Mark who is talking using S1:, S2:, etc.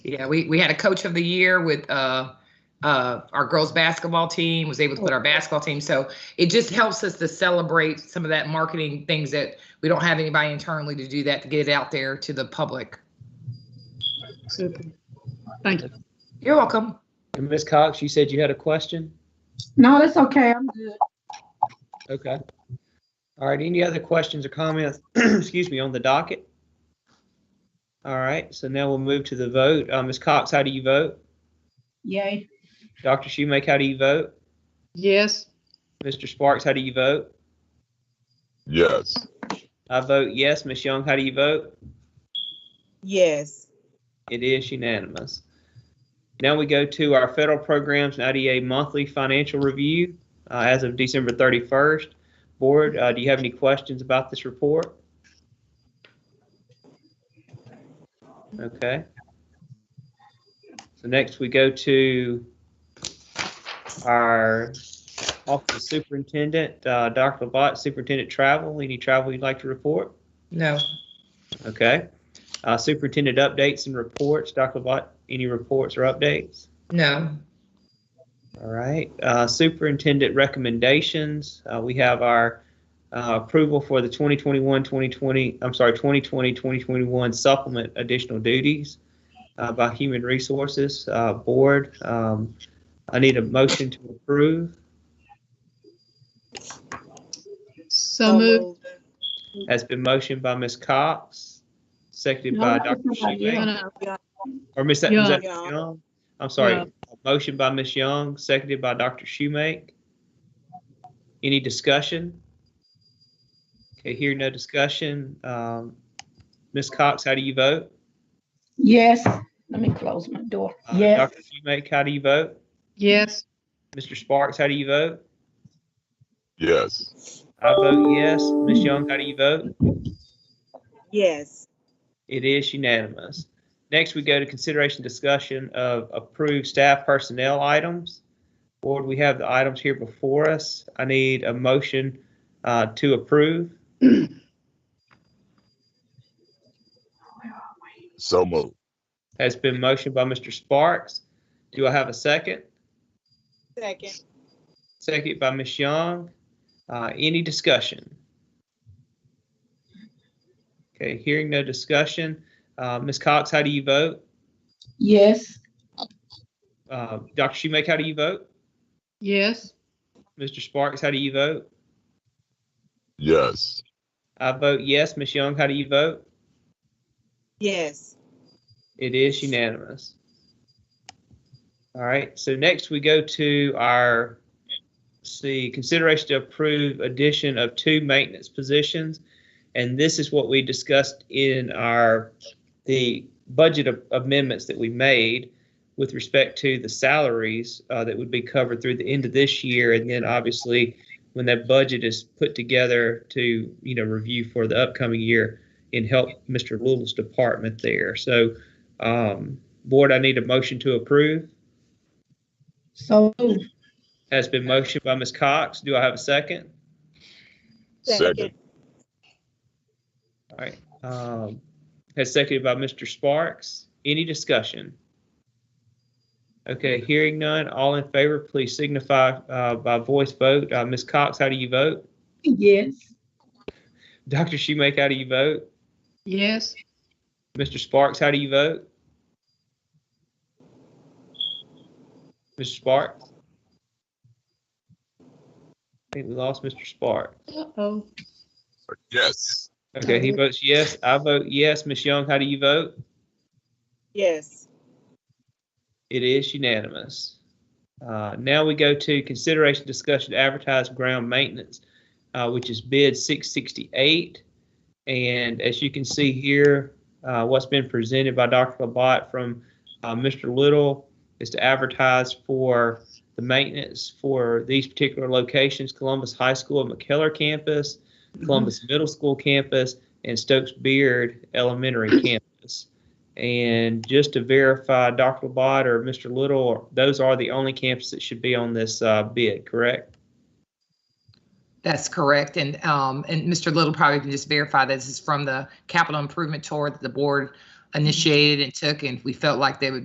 S1: Yeah, we, we had a coach of the year with uh, uh, our girls basketball team was able to put our basketball team. So it just helps us to celebrate some of that marketing things that we don't have anybody internally to do that to get it out there to the public.
S2: Super. Thank you.
S1: You're welcome.
S3: And Ms. Cox, you said you had a question?
S4: No, that's okay. I'm good.
S3: Okay. All right, any other questions or comments, excuse me, on the docket? All right, so now we'll move to the vote. Uh, Ms. Cox, how do you vote?
S4: Yay.
S3: Dr. Schumake, how do you vote?
S2: Yes,
S3: Mr. Sparks, how do you vote?
S5: Yes.
S3: I vote yes. Ms. Young, how do you vote?
S6: Yes.
S3: It is unanimous. Now we go to our federal programs and IDA monthly financial review uh, as of December 31st. Board, uh, do you have any questions about this report? Okay. So next we go to our Office of Superintendent, uh, Dr. Labat, Superintendent Travel. Any travel you'd like to report?
S1: No.
S3: Okay. Uh, Superintendent updates and reports. Dr. Labat, any reports or updates?
S1: No.
S3: All right. Uh, Superintendent recommendations. Uh, we have our uh, approval for the 2021, 2020, I'm sorry, 2020, 2021 supplement additional duties uh, by Human Resources uh, Board. Um, I need a motion to approve Oh,
S2: so moved.
S3: has been motioned by Ms. Cox, seconded by
S4: No,
S3: Dr.
S4: that's not
S3: Shoemaker.
S2: No, no,
S3: Or Miss was that Miss
S6: Young.
S3: Young? I'm sorry.
S2: Yeah.
S3: Motion by Miss Young, seconded by Dr. Schumake. Any discussion? Okay, here no discussion. Um, Ms. Cox, how do you vote?
S4: Yes. Let me close my door.
S3: Uh,
S4: Yes.
S3: Dr. Schumake, how do you vote?
S2: Yes,
S3: Mr. Sparks, how do you vote?
S5: Yes.
S3: I vote yes. Miss Young, how do you vote?
S6: Yes.
S3: It is unanimous. Next, we go to consideration discussion of approved staff personnel items. Board, we have the items here before us. I need a motion uh, to approve.
S5: So moved.
S3: Has been motioned by Mr. Sparks. Do I have a second?
S6: Second.
S3: Second by Ms. Young. Uh, Any discussion? Okay, hearing no discussion. Uh, Ms. Cox, how do you vote?
S4: Yes.
S3: Uh, Dr. Schumake, how do you vote?
S2: yes,
S3: Mr. Sparks, how do you vote?
S5: Yes.
S3: I vote yes. Ms. Young, how do you vote?
S6: Yes.
S3: It is unanimous. All right, so next we go to our, let's see, consideration to approve addition of two maintenance positions. And this is what we discussed in our, the budget of- amendments that we made with respect to the salaries uh, that would be covered through the end of this year. And then obviously, when that budget is put together to, you know, review for the upcoming year and help Mr. Little's department there. So um, Board, I need a motion to approve.
S4: So moved.
S3: Has been motioned by Ms. Cox. Do I have a second?
S5: Second.
S3: All right. Um, Has seconded by Mr. Sparks. Any discussion? Okay, hearing none. All in favor, please signify uh, by voice vote. Uh, Ms. Cox, how do you vote?
S4: Yes.
S3: Dr. Schumake, how do you vote?
S2: yes,
S3: Mr. Sparks, how do you vote? Mr. Sparks? I think we lost Mr. Sparks.
S2: uh-oh,
S5: Yes.
S3: Okay, he votes yes. I vote yes. Ms. Young, how do you vote?
S6: Yes.
S3: It is unanimous. Uh, Now we go to consideration discussion to advertise ground maintenance, uh, which is bid 668. And as you can see here, uh, what's been presented by Dr. Labat from uh, Mr. Little is to advertise for the maintenance for these particular locations, Columbus High School and McKellar Campus, Columbus Middle School Campus, and Stokes Beard Elementary Campus. And just to verify, Dr. Labat or Mr. Little, those are the only campuses that should be on this uh, bid, correct?
S1: That's correct. And, um, and Mr. Little probably can just verify this is from the capital improvement tour that the board initiated and took, and we felt like they would